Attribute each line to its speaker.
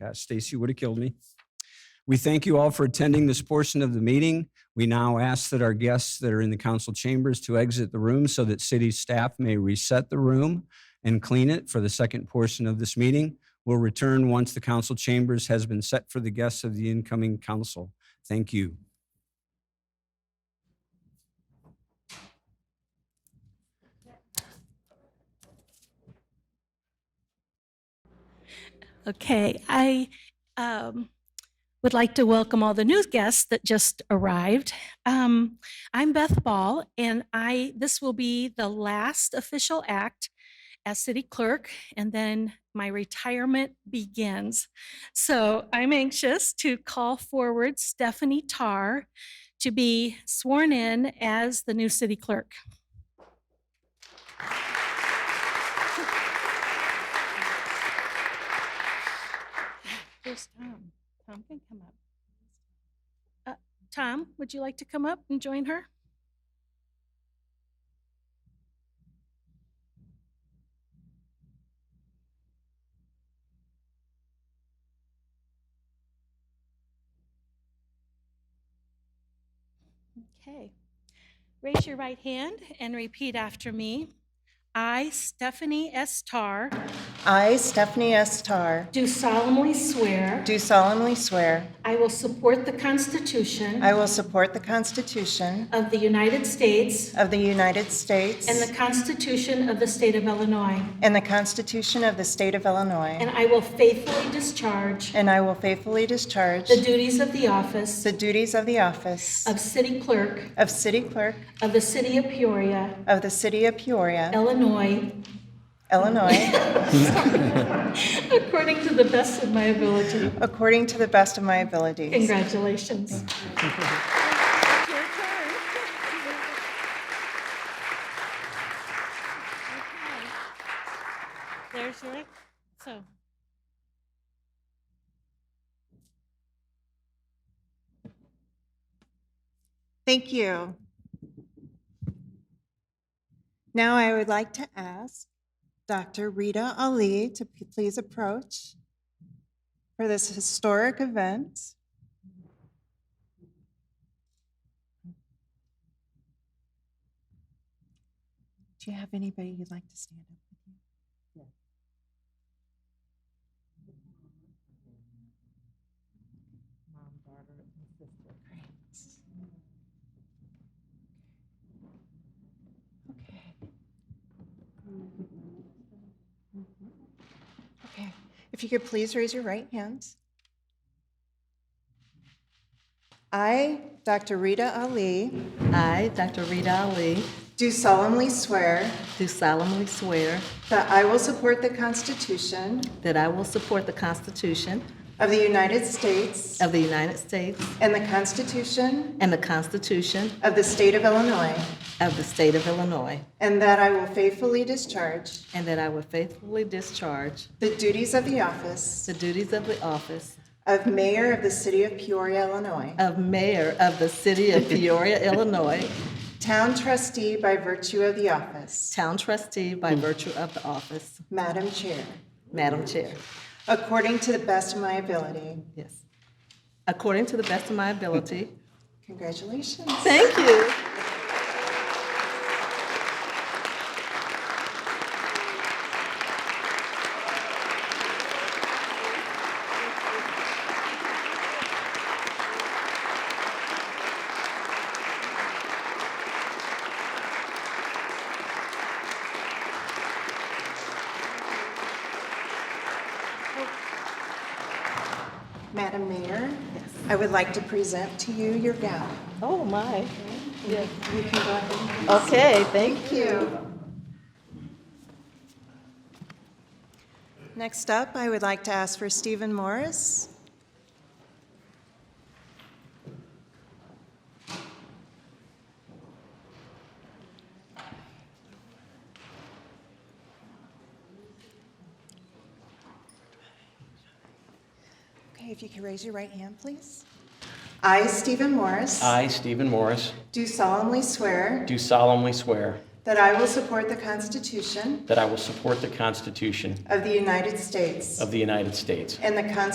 Speaker 1: Gosh, Stacy would have killed me. We thank you all for attending this portion of the meeting. We now ask that our guests that are in the council chambers to exit the room so that city staff may reset the room and clean it for the second portion of this meeting. We'll return once the council chambers has been set for the guests of the incoming council. Thank you.
Speaker 2: Okay, I um, would like to welcome all the new guests that just arrived. Um, I'm Beth Ball, and I, this will be the last official act as city clerk, and then my retirement begins. So I'm anxious to call forward Stephanie Tarr to be sworn in as the new city clerk. There's Tom. Tom can come up. Uh, Tom, would you like to come up and join her? Okay. Raise your right hand and repeat after me. I, Stephanie S. Tarr,
Speaker 3: I, Stephanie S. Tarr,
Speaker 2: do solemnly swear.
Speaker 3: do solemnly swear
Speaker 2: I will support the Constitution
Speaker 3: I will support the Constitution
Speaker 2: of the United States
Speaker 3: of the United States
Speaker 2: and the Constitution of the State of Illinois,
Speaker 3: and the Constitution of the State of Illinois,
Speaker 2: and I will faithfully discharge
Speaker 3: and I will faithfully discharge
Speaker 2: the duties of the office
Speaker 3: the duties of the office
Speaker 2: of City Clerk
Speaker 3: of City Clerk
Speaker 2: of the City of Peoria,
Speaker 3: of the City of Peoria,
Speaker 2: Illinois,
Speaker 3: Illinois,
Speaker 2: according to the best of my ability.
Speaker 3: according to the best of my abilities.
Speaker 2: Congratulations. There's your, so.
Speaker 3: Thank you. Now I would like to ask Dr. Rita Ali to p- please approach for this historic event. Do you have anybody you'd like to stand up with you? Mom, daughter, and sister. Great. Okay. Okay, if you could please raise your right hand. I, Dr. Rita Ali,
Speaker 4: I, Dr. Rita Ali,
Speaker 3: do solemnly swear
Speaker 4: do solemnly swear
Speaker 3: that I will support the Constitution
Speaker 4: that I will support the Constitution
Speaker 3: of the United States
Speaker 4: of the United States
Speaker 3: and the Constitution
Speaker 4: and the Constitution
Speaker 3: of the State of Illinois,
Speaker 4: of the State of Illinois,
Speaker 3: and that I will faithfully discharge
Speaker 4: and that I will faithfully discharge
Speaker 3: the duties of the office
Speaker 4: the duties of the office
Speaker 3: of Mayor of the City of Peoria, Illinois,
Speaker 4: of Mayor of the City of Peoria, Illinois,
Speaker 3: Town Trustee by virtue of the office.
Speaker 4: Town Trustee by virtue of the office.
Speaker 3: Madam Chair,
Speaker 4: Madam Chair,
Speaker 3: according to the best of my ability.
Speaker 4: yes. According to the best of my ability.
Speaker 3: Congratulations.
Speaker 4: Thank you.
Speaker 3: Madam Mayor, I would like to present to you your gown.
Speaker 4: Oh, my.
Speaker 3: You can go ahead.
Speaker 4: Okay, thank
Speaker 3: Thank you. Next up, I would like to ask for Stephen Morris. Okay, if you could raise your right hand, please. I, Stephen Morris.
Speaker 5: I, Stephen Morris,
Speaker 3: Do solemnly swear
Speaker 5: do solemnly swear
Speaker 3: that I will support the Constitution
Speaker 5: that I will support the Constitution
Speaker 3: of the United States
Speaker 5: of the United States
Speaker 3: and the Constitution